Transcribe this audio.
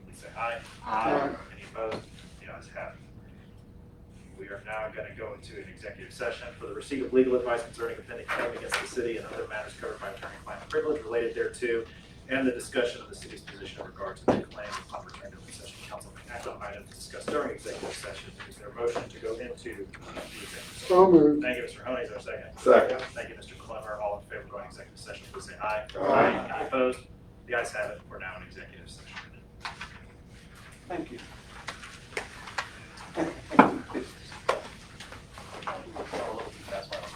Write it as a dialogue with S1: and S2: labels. S1: say aye.
S2: Aye.
S1: Any opposed? The ayes have it. We are now going to go into an executive session for the receipt of legal advice concerning a pending claim against the city and other matters covered by attorney-client privilege related thereto, and the discussion of the city's position in regard to the claim upon return to open session. Council may act on items discussed during executive session. Is there a motion to go into the executive session?
S2: So moved.
S1: Thank you, Mr. Mahoney, is there a second?
S3: Second.
S1: Thank you, Mr. Clemmer, all in favor of going executive session, please say aye.
S3: Aye.
S1: Any opposed? The ayes have it, we're now in executive session.
S2: Thank you.